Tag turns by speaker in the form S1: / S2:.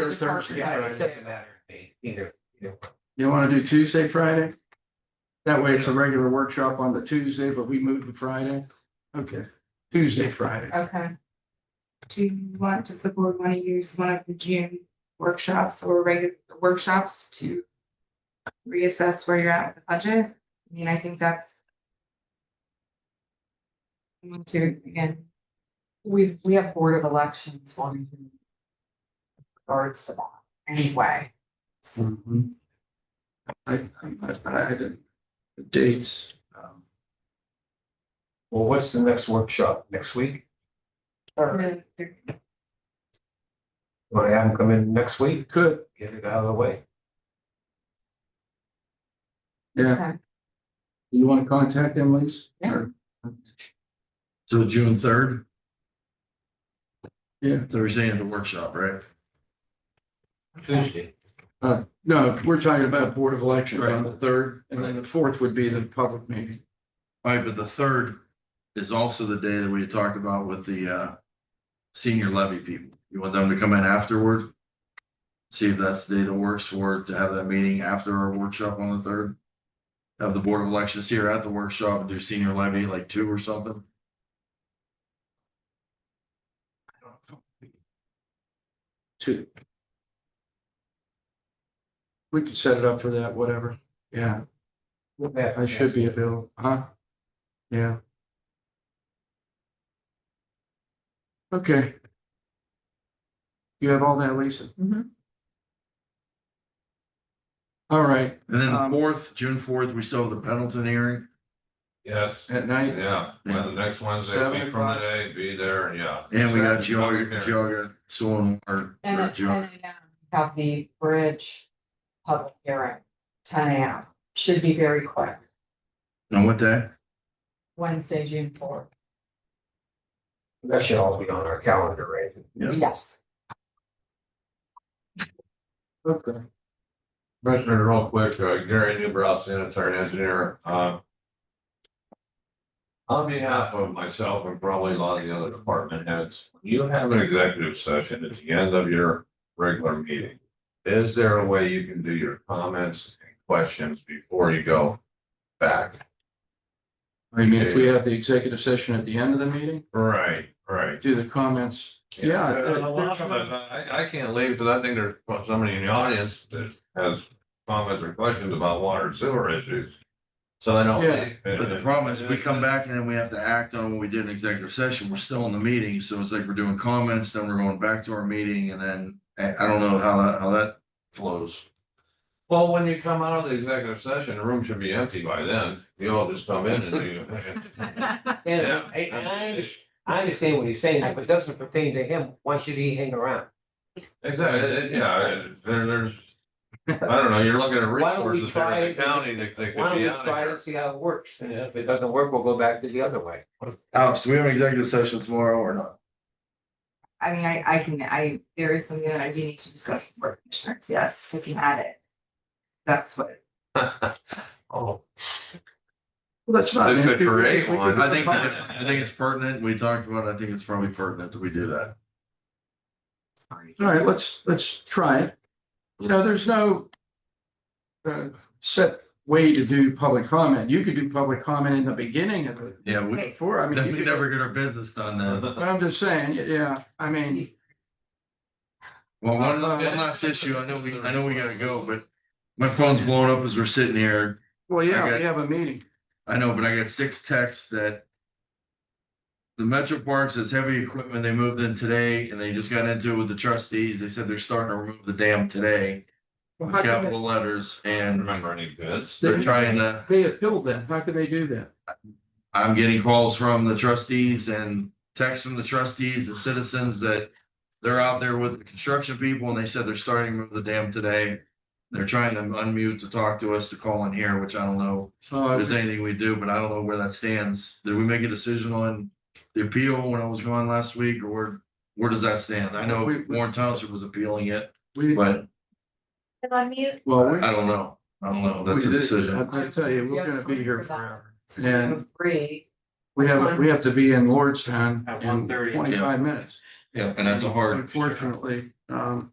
S1: Or
S2: Thursday,
S1: Thursday,
S2: Friday.
S3: Yeah, it
S1: Friday.
S3: doesn't matter, to me, either, either. one.
S1: You wanna do Tuesday, Friday? That way it's a regular workshop on the Tuesday, but we move to Friday. Okay, Tuesday, Friday.
S2: Okay. Do you want, does the board want to use one of the June workshops or regular workshops to reassess where you're at with the budget? I mean, I think that's I want to, again,
S4: We, we have Board of Elections on in regards to that anyway.
S1: Mhm. I, I, I, I didn't, the dates, um,
S3: Well, what's the next workshop, next week?
S2: the- the-
S3: Want to have them come in next week,
S1: could,
S3: get it out of the way?
S1: yeah,
S2: okay.
S1: you wanna contact them, Lisa?
S2: Yeah.
S1: Or-
S5: So June third,
S1: Yeah,
S5: Thursday at the workshop, right?
S3: Tuesday.
S1: uh, no, we're talking about Board of Elections on the third, and then the fourth would be the public meeting.
S5: All right, but the third is also the day that we had talked about with the uh senior levy people. You want them to come in afterward? See if that's the day that works for to have that meeting after our workshop on the third. Have the Board of Elections here at the workshop and do senior levy like two or something.
S1: Two. We could set it up for that, whatever, yeah. I should be available, huh? Yeah. Okay. You have all that, Lisa?
S2: Mhm.
S1: All right,
S5: And then the
S1: Um,
S5: fourth, June fourth, we still have the Pendleton hearing.
S6: Yes,
S1: at night,
S6: yeah,
S5: Yeah.
S6: well, the next Wednesday,
S1: Seven
S6: week
S1: o'clock.
S6: from today, be there, yeah.
S5: And we got
S6: Public
S5: Georgia,
S6: hearing.
S5: Georgia, Soil and
S4: And
S5: Water.
S4: at ten AM, we have the bridge public hearing, ten AM, should be very quick,
S5: On what day?
S4: Wednesday, June fourth,
S3: That should all be on our calendar, right?
S5: Yeah.
S4: yes.
S1: okay,
S6: Commissioner, real quick, uh, Gary Newbrow, sanitary engineer, uh. On behalf of myself and probably a lot of the other department heads, when you have an executive session at the end of your regular meeting. Is there a way you can do your comments and questions before you go back?
S1: I mean, if we have the executive session at the end of the meeting,
S6: Right, right.
S1: do the comments, yeah.
S6: Uh,
S1: uh,
S6: a lot
S1: there's
S6: of
S1: no-
S6: it, I, I can't leave because I think there's somebody in the audience that has comments or questions about water and sewer issues. So I don't.
S1: Yeah.
S6: leave.
S5: But the problem is, we come back and then we have to act on what we did in executive session, we're still in the meeting, so it's like we're doing comments, then we're going back to our meeting, and then, I, I don't know how that, how that flows.
S6: Well, when you come out of the executive session, the room should be empty by then. You all just come in and you.
S3: Yeah, I, I understand, I understand what he's saying, if it doesn't pertain to him, why should he hang around?
S6: Exactly, it- it- yeah, it- there, there's, I don't know, you're looking at
S3: Why don't we
S6: resources there in the
S3: try-
S6: county that they
S3: Why
S6: could
S3: don't
S6: be
S3: we
S6: out of
S3: try
S6: here.
S3: and see how it works, and if it doesn't work, we'll go back to the other way.
S5: Alex, do we have an executive session tomorrow or not?
S2: I mean, I, I can, I, there is something that I do need to discuss with board commissioners, yes, if you had it. That's what,
S1: Well,
S3: Oh,
S1: that's not.
S6: They could
S1: We- we-
S6: create
S1: we could-
S6: one.
S5: I think, I think it's pertinent, we talked about, it. I think it's probably pertinent that we do that.
S2: sorry.
S1: All right, let's, let's try it. You know, there's no uh, set way to do public comment. You could do public comment in the beginning of the,
S5: Yeah, we,
S1: before, I mean.
S5: then
S1: you
S5: we
S1: could-
S5: never get our business done then.
S1: But I'm just saying, y- yeah, I mean,
S5: Well, one, la- one last issue, I know we, I know we gotta go, but my phone's blowing up as we're sitting here,
S1: well, yeah, we
S5: Okay.
S1: have a meeting.
S5: I know, but I got six texts that. The Metro Parks is heavy equipment. They moved in today and they just got into it with the trustees. They said they're starting to remove the dam today. with
S1: How can
S5: Capital letters
S6: I don't
S5: and
S6: Remember any bids?
S5: they're trying to,
S1: They appeal that. How can they do that?
S5: I'm getting calls from the trustees and texts from the trustees and citizens that. They're out there with the construction people and they said they're starting to remove the dam today. They're trying to unmute to talk to us to call in here, which I don't know.
S1: Uh,
S5: If there's anything we do, but I don't know where that stands. Did we make a decision on the appeal when I was gone last week or where does that stand? I know
S1: We- we-
S5: Warren Township was appealing it,
S1: We, well,
S5: but
S1: we.
S5: I don't know. I don't know. That's a
S1: we-
S5: decision.
S1: I I tell you, we're
S4: Yeah,
S1: gonna be
S4: time
S1: here
S4: for that.
S3: Oh.
S1: forever.
S4: It's free,
S1: We have, we have to be in Lordstown
S3: At
S1: in
S3: 1:30.
S1: twenty-five minutes.
S5: Yeah, and that's a hard.
S1: Unfortunately, um,